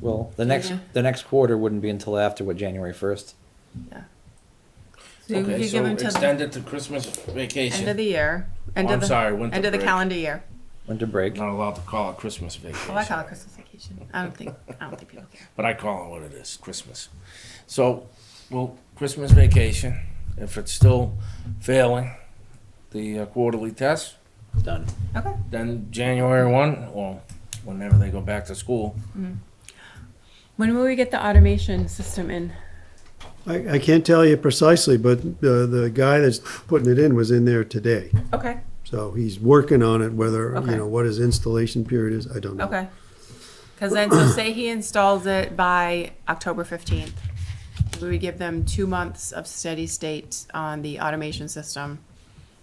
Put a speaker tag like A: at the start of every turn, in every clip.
A: Well, the next,
B: Yeah.
A: the next quarter wouldn't be until after, what, January first?
B: yeah. So you
C: Okay,
B: could give
C: so
B: them till the
C: extend it to Christmas
B: end of
C: vacation.
B: the year,
C: Oh,
B: end
C: I'm
B: of the,
C: sorry, winter
B: end of the
C: break.
B: calendar year.
A: Winter break.
C: Not allowed to call it Christmas
B: Well, Oh, I
C: vacation,
B: call it Christmas vacation. I don't think, I don't think people care.
C: but I call it what it is, Christmas. So, well, Christmas vacation, if it's still failing the uh, quarterly test,
A: Done.
B: Okay,
C: then January one, or whenever they go back to school.
D: When will we get the automation system in?
E: I, I can't tell you precisely, but the, the guy that's putting it in was in there today.
B: okay,
E: So he's working on it, whether,
B: Okay.
E: you know, what his installation period is, I don't know.
B: okay. Cause then, so say he installs it by October fifteenth. We would give them two months of steady state on the automation system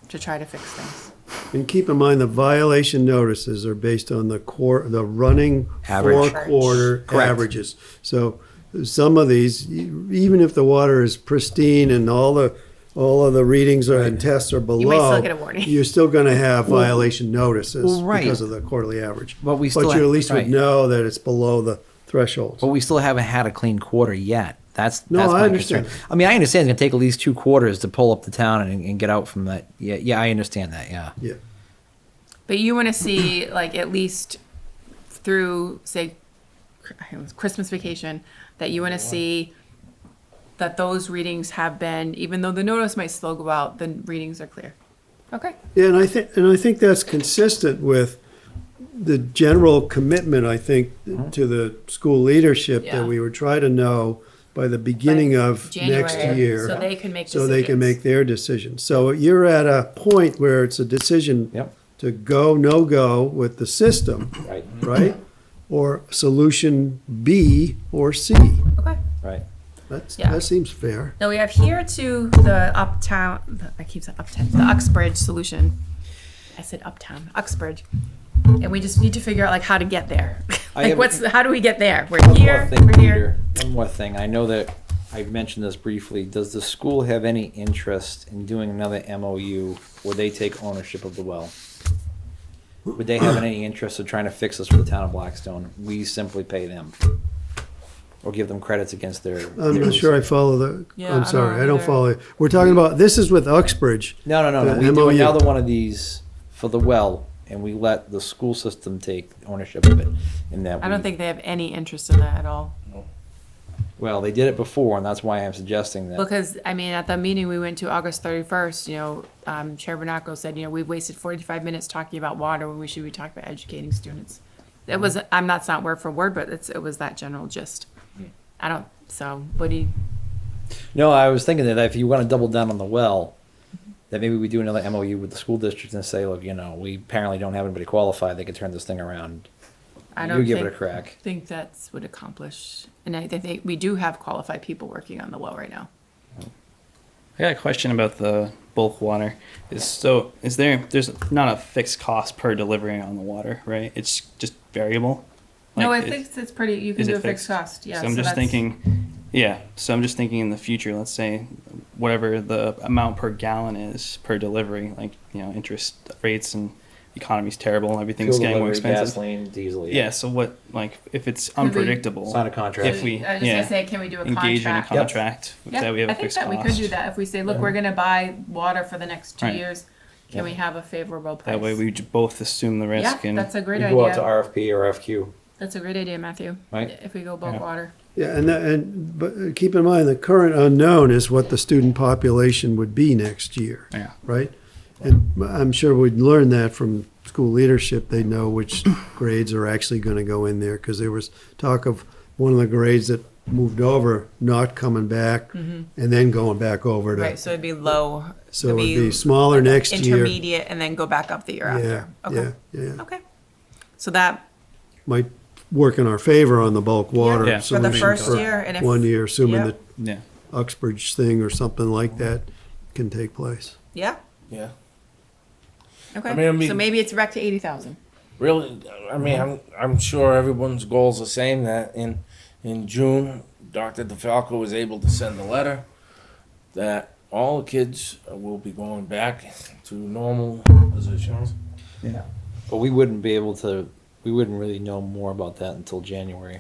B: to try to fix things.
E: And keep in mind, the violation notices are based on the core, the running
A: Average.
E: four-quarter
A: Correct.
E: averages. So some of these, e- even if the water is pristine and all the, all of the readings are, and tests are below.
B: still get a warning.
E: You're still gonna have violation notices
A: well, right.
E: because of the quarterly average.
A: But we still
E: But you
A: have-
E: at least
A: right.
E: would know that it's below the threshold.
A: But we still haven't had a clean quarter yet. That's,
E: No,
A: that's
E: I
A: my
E: understand.
A: concern. I mean, I understand it's gonna take at least two quarters to pull up the town and, and get out from that. Yeah, yeah, I understand that, yeah.
E: Yeah,
B: But you want to see like at least through say Chr- I almost- Christmas vacation that you want to see that those readings have been even though the notice might still go out the readings are clear. Okay.
E: Yeah, and I think, and I think that's consistent with the general commitment, I think, to the school leadership
B: Yeah.
E: that we would try to know by the beginning of next
B: January,
E: year.
B: so they can make
E: So they can
B: decisions.
E: make their decision. So you're at a point where it's a decision
A: Yep.
E: to go, no go with the system,
A: Right.
E: right? Or solution B or C.
B: Okay.
A: Right.
E: That's,
B: Yeah.
E: that seems fair.
B: Now we have here to the uptown, I keep saying uptown, the Uxbridge solution. I said uptown, Uxbridge. And we just need to figure out like how to get there.
A: I
B: Like
A: have-
B: what's, the- how do we get there? We're
A: One more
B: here,
A: thing,
B: we're here.
A: Peter. One more thing. I know that I've mentioned this briefly. Does the school have any interest in doing another MOU where they take ownership of the well? Would they have any interest in trying to fix this for the town of Blackstone? We simply pay them. Or give them credits against their.
E: I'm not sure I follow the,
B: Yeah, I
E: I'm
B: don't
E: sorry, I don't
B: either.
E: follow. you. We're talking about, this is with Uxbridge.
A: No, no, no, no.
E: The
A: We do
E: MOU.
A: another one of these for the well and we let the school system take ownership of it in that.
B: I don't
A: we-
B: think they have any interest in that at all.
A: Well, they did it before and that's why I'm suggesting that.
B: Because, I mean, at the meeting we went to August thirty-first, you know, um, Chair Bernacco said, you know, we've wasted forty-five minutes talking about water, when we should be talking about educating students. It
F: Mm-hmm.
B: was, I'm, that's not word for word, but it's, it was that general gist. I don't, so, what do you,
A: No, I was thinking that if you want to double down on the well, that maybe we do another MOU with the school district and say, look, you know, we apparently don't have anybody qualified that could turn this thing around.
B: I
A: You
B: don't
A: give it a
B: think-
A: crack.
B: Think that's would accomplish, and I, I think we do have qualified people working on the well right now.
F: I got a question about the bulk water. Is so is there there's not a fixed cost per delivery on the water, right? It's just variable.
B: No, I
F: Like,
B: think it's pretty, you can
F: is
B: do
F: it
B: a fixed cost, yeah.
F: So I'm just
B: that's-
F: thinking, yeah. So I'm just thinking in the future, let's say whatever the amount per gallon is per delivery, like you know interest rates and economy's terrible, everything's
A: Fuel
F: getting more
A: delivery,
F: expensive.
A: Gasoline, diesel.
F: Yeah. So what like if it's
B: we
F: unpredictable,
A: Sign a contract.
F: if we
B: I was just
F: yeah
B: gonna say, can we do a
F: engage in a
B: contract?
F: contract that we have a fixed
B: I think that
F: cost?
B: we could do that if we say, look, we're gonna buy water for the next two
F: Right.
B: years. Can we have a favorable price?
F: That way we j- both assume the
B: Yeah,
F: risk and
B: that's a
A: We
B: great
A: go out to
B: idea.
A: RFP or FQ.
B: That's a great idea, Matthew.
A: Right.
B: If we go bulk
F: Yeah.
B: water.
E: Yeah, and, that- and, but uh, keep in mind, the current unknown is what the student population would be next year,
F: yeah.
E: right? And I'm sure we'd learn that from school leadership, they know which grades are actually gonna go in there, because there was talk of one of the grades that moved over, not coming back, and then going back over to,
B: Mm-hmm. so it'd be low.
E: so it'd be smaller next year.
B: and then go back up the year
E: Yeah, yeah, yeah,
B: Okay. So that,
E: might work in our favor on the bulk
B: Yeah.
E: water
F: Yeah.
B: For the
E: solution
B: first
E: for
B: year, and if-
E: one year, assuming
B: yeah.
E: that
F: Yeah.
E: Uxbridge thing or something like that can take place.
B: yeah,
C: Yeah.
B: okay.
C: I mean, I mean-
B: So maybe it's back to eighty thousand.
C: Really, I mean, I'm, I'm sure everyone's goal's the same, that in, in June, Dr. DeFalco was able to send a letter that all kids will be going back to normal positions.
A: But we wouldn't be able to, we wouldn't really know more about that until January.